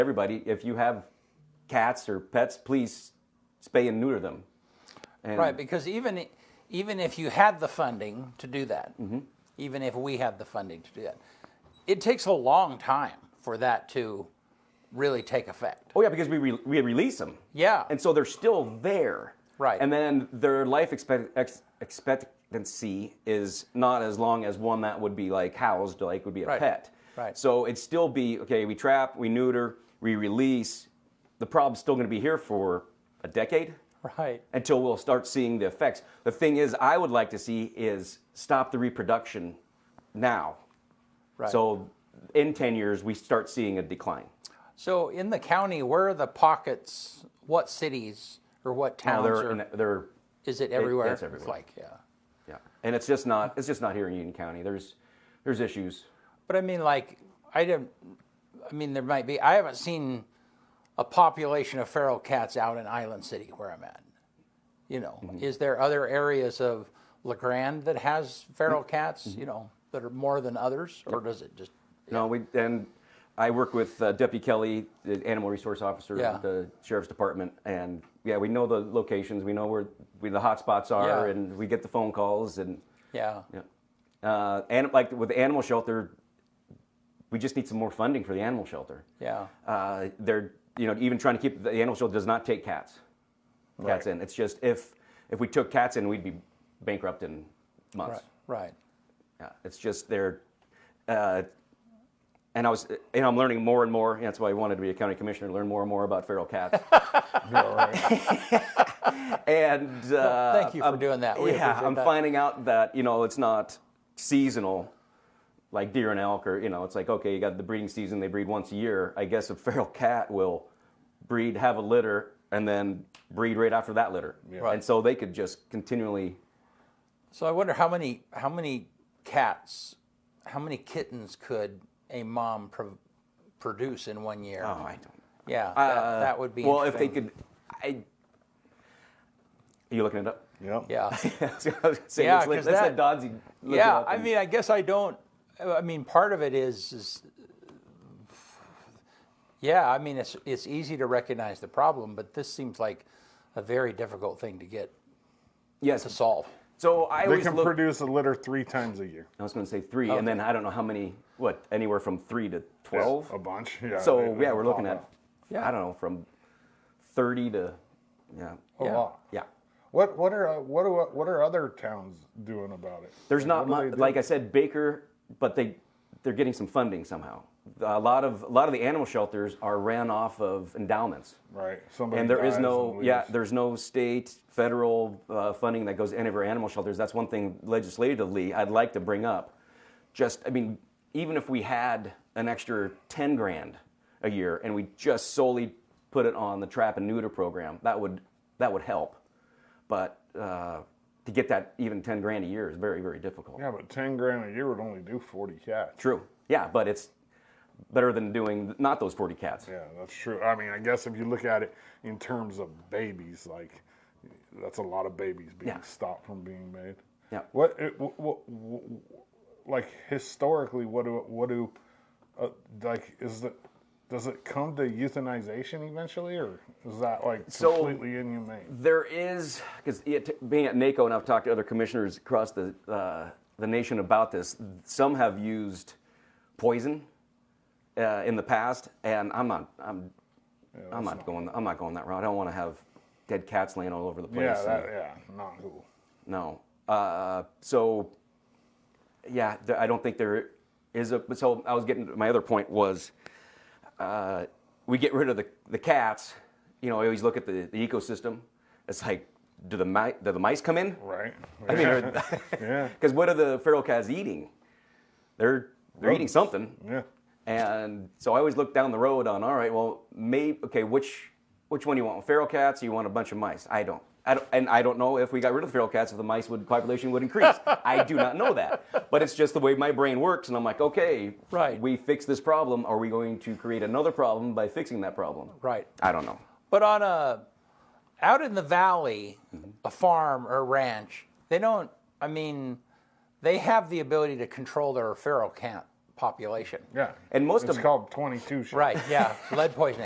everybody, if you have cats or pets, please spay and neuter them. And Right, because even, even if you had the funding to do that, even if we had the funding to do that, it takes a long time for that to really take effect. Oh yeah, because we re- we release them. Yeah. And so they're still there. Right. And then their life expect- ex- expectancy is not as long as one that would be like housed, like would be a Right. pet. Right. So it'd still be okay. We trap, we neuter, we release. The problem's still going to be here for a decade Right. until we'll start seeing the effects. The thing is, I would like to see is stop the reproduction now. Right. So in ten years, we start seeing a decline. So in the county, where are the pockets? What cities or what Now towns? they're are, in- they're is it everywhere? it's everywhere. like, yeah. Yeah, and it's just not it's just not here in Union County. There's there's issues. But I mean, like, I don't. I mean, there might be. I haven't seen a population of feral cats out in Island City where I'm at. You know, Mm-hmm. is there other areas of La Grande that has Mm-hmm. feral cats? You know, that are more than others, or does it just? No, we and I work with uh, Deputy Kelly, the animal resource officer Yeah. at the sheriff's department, and yeah, we know the locations. We know where we, the hot spots are, Yeah. and we get the phone calls and Yeah. yeah. Uh, and like with the animal shelter, we just need some more funding for the animal shelter. Yeah. uh, they're you know even trying to keep the animal shelter does not take cats cats in it's just if if we took cats in we'd be bankrupt in months Right. Right. yeah, it's just they're uh, and I was you know I'm learning more and more that's why I wanted to be a county commissioner learn more and more about feral cats and uh, Thank you for doing that. We yeah appreciate I'm that. finding out that you know it's not seasonal like deer and elk or you know it's like okay you got the breeding season they breed once a year I guess a feral cat will breed have a litter and then breed right after that litter Right. and so they could just continually So I wonder how many how many cats, how many kittens could a mom pro- produce in one year? oh I don't yeah, that, Uh, that would be Well, if they interesting. could, I. Are you looking it up? Yep. Yeah, I was gonna say, Yeah, let's let- 'cause let's let that- Dodsy look it yeah. up I and- mean, I guess I don't. I mean, part of it is, is yeah. I mean, it's it's easy to recognize the problem, but this seems like a very difficult thing to get to yes. solve. So I They always can look. produce a litter three times a year. I was going to say three, and then I don't know how many. What anywhere from three to twelve. A bunch. Yeah. so they- they yeah, we're looking pop at. up. Yeah. I don't know from thirty to, yeah, a Yeah. lot. yeah. What what are uh, what are what are other towns doing about it? There's not what do much, they do? like I said, Baker, but they they're getting some funding somehow. A lot of a lot of the animal shelters are ran off of endowments. right. Somebody and there is dies no and yeah leaves. there's no state federal uh, funding that goes to any of our animal shelters that's one thing legislatively i'd like to bring up just i mean even if we had an extra 10 grand a year and we just solely put it on the trap and neuter program that would that would help but uh, to get that even 10 grand a year is very very difficult Yeah, but ten grand a year would only do forty cats. true yeah but it's better than doing not those 40 cats Yeah, that's true. I mean, I guess if you look at it in terms of babies, like that's a lot of babies being Yeah. stopped from being made. Yeah. What, it, what, like historically, what do what do uh, like is the does it come to euthanization eventually, or is that like So- completely inhumane? There is, because being at NACO and I've talked to other commissioners across the, uh, the nation about this, some have used poison uh, in the past, and I'm not, I'm, I'm not going, I'm not going that route. I don't want to have dead cats laying all over the place. Yeah, and- that, yeah, not cool. no. Uh, so, yeah, th- I don't think there is a. So I was getting my other point was, uh, we get rid of the the cats. You know, I always look at the, the ecosystem. It's like, do the mi- do the mice come in? Right. I mean, are- yeah. Because what are the feral cats eating? They're they're eating Rodents. something. Yeah. And so I always look down the road on, all right, well, maybe okay, which which one do you want? Feral cats? Or you want a bunch of mice? I don't. I don't, and I don't know if we got rid of the feral cats, if the mice would population would increase. I do not know that, but it's just the way my brain works, and I'm like, okay, Right. We fix this problem. Are we going to create another problem by fixing that problem? Right. I don't know. But on a out in the valley, Mm-hmm. a farm or ranch, they don't. I mean, they have the ability to control their feral cat population. Yeah. And most it's of- called 22 shit. Right, yeah, lead poisoning.